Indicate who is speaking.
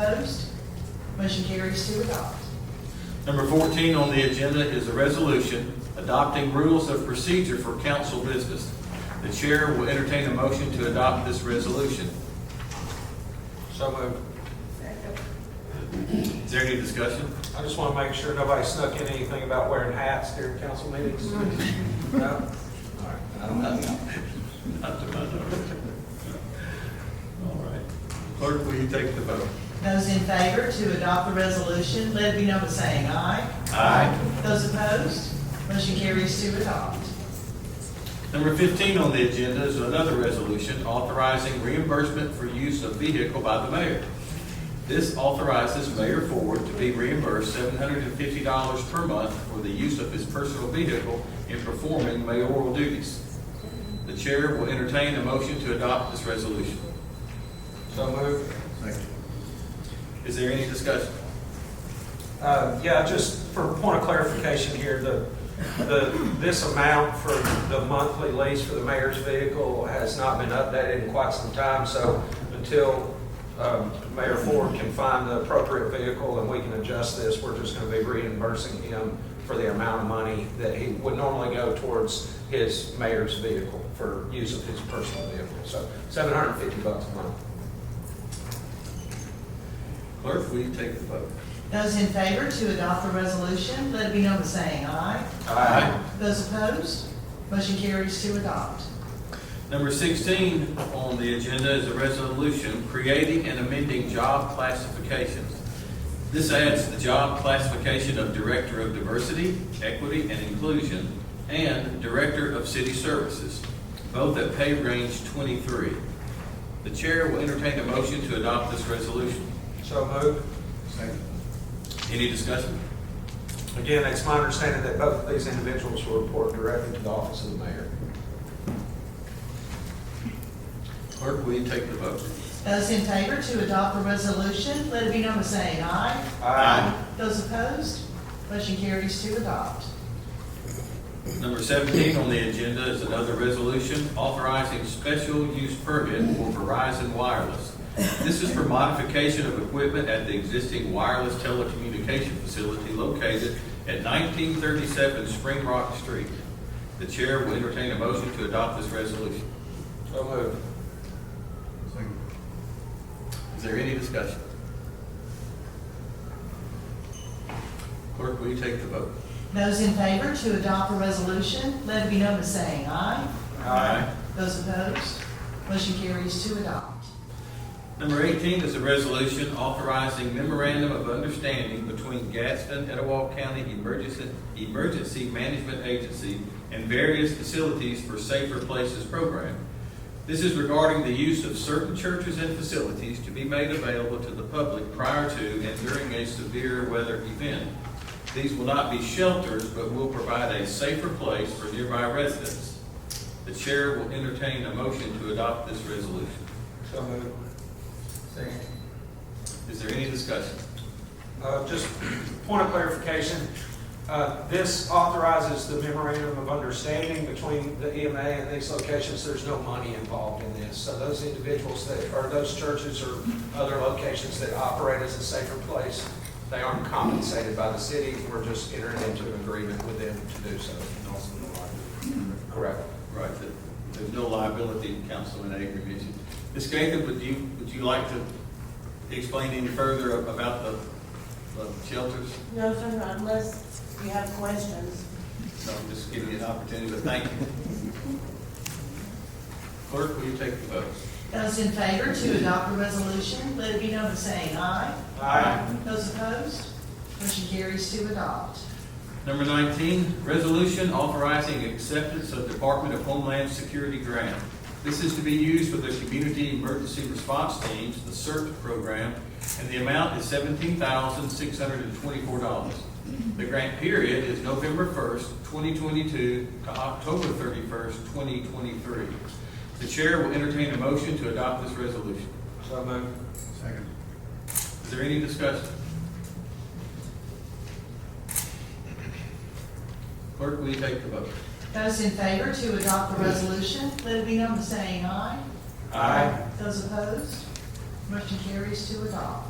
Speaker 1: opposed? Motion carries to adopt.
Speaker 2: Number 14 on the agenda is a resolution adopting rules of procedure for council business. The chair will entertain a motion to adopt this resolution.
Speaker 3: So uh, moved.
Speaker 2: Is there any discussion?
Speaker 3: I just want to make sure nobody snuck in anything about wearing hats during council meetings. No? All right. I don't know.
Speaker 2: Not to my knowledge. All right. Clerk, will you take the vote?
Speaker 1: Those in favor to adopt the resolution, let it be known by saying aye.
Speaker 2: Aye.
Speaker 1: Those opposed? Motion carries to adopt.
Speaker 2: Number 15 on the agenda is another resolution authorizing reimbursement for use of vehicle by the mayor. This authorizes Mayor Ford to be reimbursed $750 per month for the use of his personal vehicle in performing mayoral duties. The chair will entertain a motion to adopt this resolution.
Speaker 3: So moved.
Speaker 2: Is there any discussion?
Speaker 3: Uh, Yeah, just for point of clarification here, the, the, this amount for the monthly lease for the mayor's vehicle has not been updated in quite some time, so until um, Mayor Ford can find the appropriate vehicle and we can adjust this, we're just going to be reimbursing him for the amount of money that he would normally go towards his mayor's vehicle for use of his personal vehicle. So 750 bucks a month.
Speaker 2: Clerk, will you take the vote?
Speaker 1: Those in favor to adopt the resolution, let it be known by saying aye. Those opposed? Motion carries to adopt.
Speaker 2: Number 16 on the agenda is a resolution creating and amending job classifications. This adds the job classification of Director of Diversity, Equity, and Inclusion and Director of City Services, both at pay range 23. The chair will entertain a motion to adopt this resolution.
Speaker 3: So moved.
Speaker 2: Any discussion?
Speaker 3: Again, it's my understanding that both of these individuals will report directly to the office of the mayor.
Speaker 2: Clerk, will you take the vote?
Speaker 1: Those in favor to adopt the resolution, let it be known by saying aye.
Speaker 2: Aye.
Speaker 1: Those opposed? Motion carries to adopt.
Speaker 2: Number 17 on the agenda is another resolution authorizing special use permit for Verizon Wireless. This is for modification of equipment at the existing wireless telecommunication facility located at 1937 Spring Rock Street. The chair will entertain a motion to adopt this resolution.
Speaker 3: So moved.
Speaker 2: Is there any discussion? Clerk, will you take the vote?
Speaker 1: Those in favor to adopt the resolution, let it be known by saying aye. Those opposed? Motion carries to adopt.
Speaker 2: Number 18 is a resolution authorizing memorandum of understanding between Gadsden, Etowah County Emergency, Emergency Management Agency and various facilities for Safer Places program. This is regarding the use of certain churches and facilities to be made available to the public prior to and during a severe weather event. These will not be shelters, but will provide a safer place for nearby residents. The chair will entertain a motion to adopt this resolution.
Speaker 3: So moved. Second.
Speaker 2: Is there any discussion?
Speaker 3: Uh, Just point of clarification, uh, this authorizes the memorandum of understanding between the EMA and these locations. There's no money involved in this. So those individuals that, or those churches or other locations that operate as a safer place, they aren't compensated by the city. We're just entering into an agreement with them to do so. Correct.
Speaker 2: Right, that there's no liability, Councilman Avery mentioned. Ms. Gaither, would you, would you like to explain any further about the the shelters?
Speaker 4: No, sir, not unless you have questions.
Speaker 2: No, I'm just giving you an opportunity, but thank you. Clerk, will you take the vote?
Speaker 1: Those in favor to adopt the resolution, let it be known by saying aye. Those opposed? Motion carries to adopt.
Speaker 2: Number 19, resolution authorizing acceptance of Department of Homeland Security grant. This is to be used for the Community Emergency Response Teams, the CERT program, and the amount is $17,624. The grant period is November 1st, 2022 to October 31st, 2023. The chair will entertain a motion to adopt this resolution.
Speaker 3: So moved.
Speaker 2: Is there any discussion? Clerk, will you take the vote?
Speaker 1: Those in favor to adopt the resolution, let it be known by saying aye.
Speaker 3: Aye.
Speaker 1: Those opposed? Motion carries to adopt.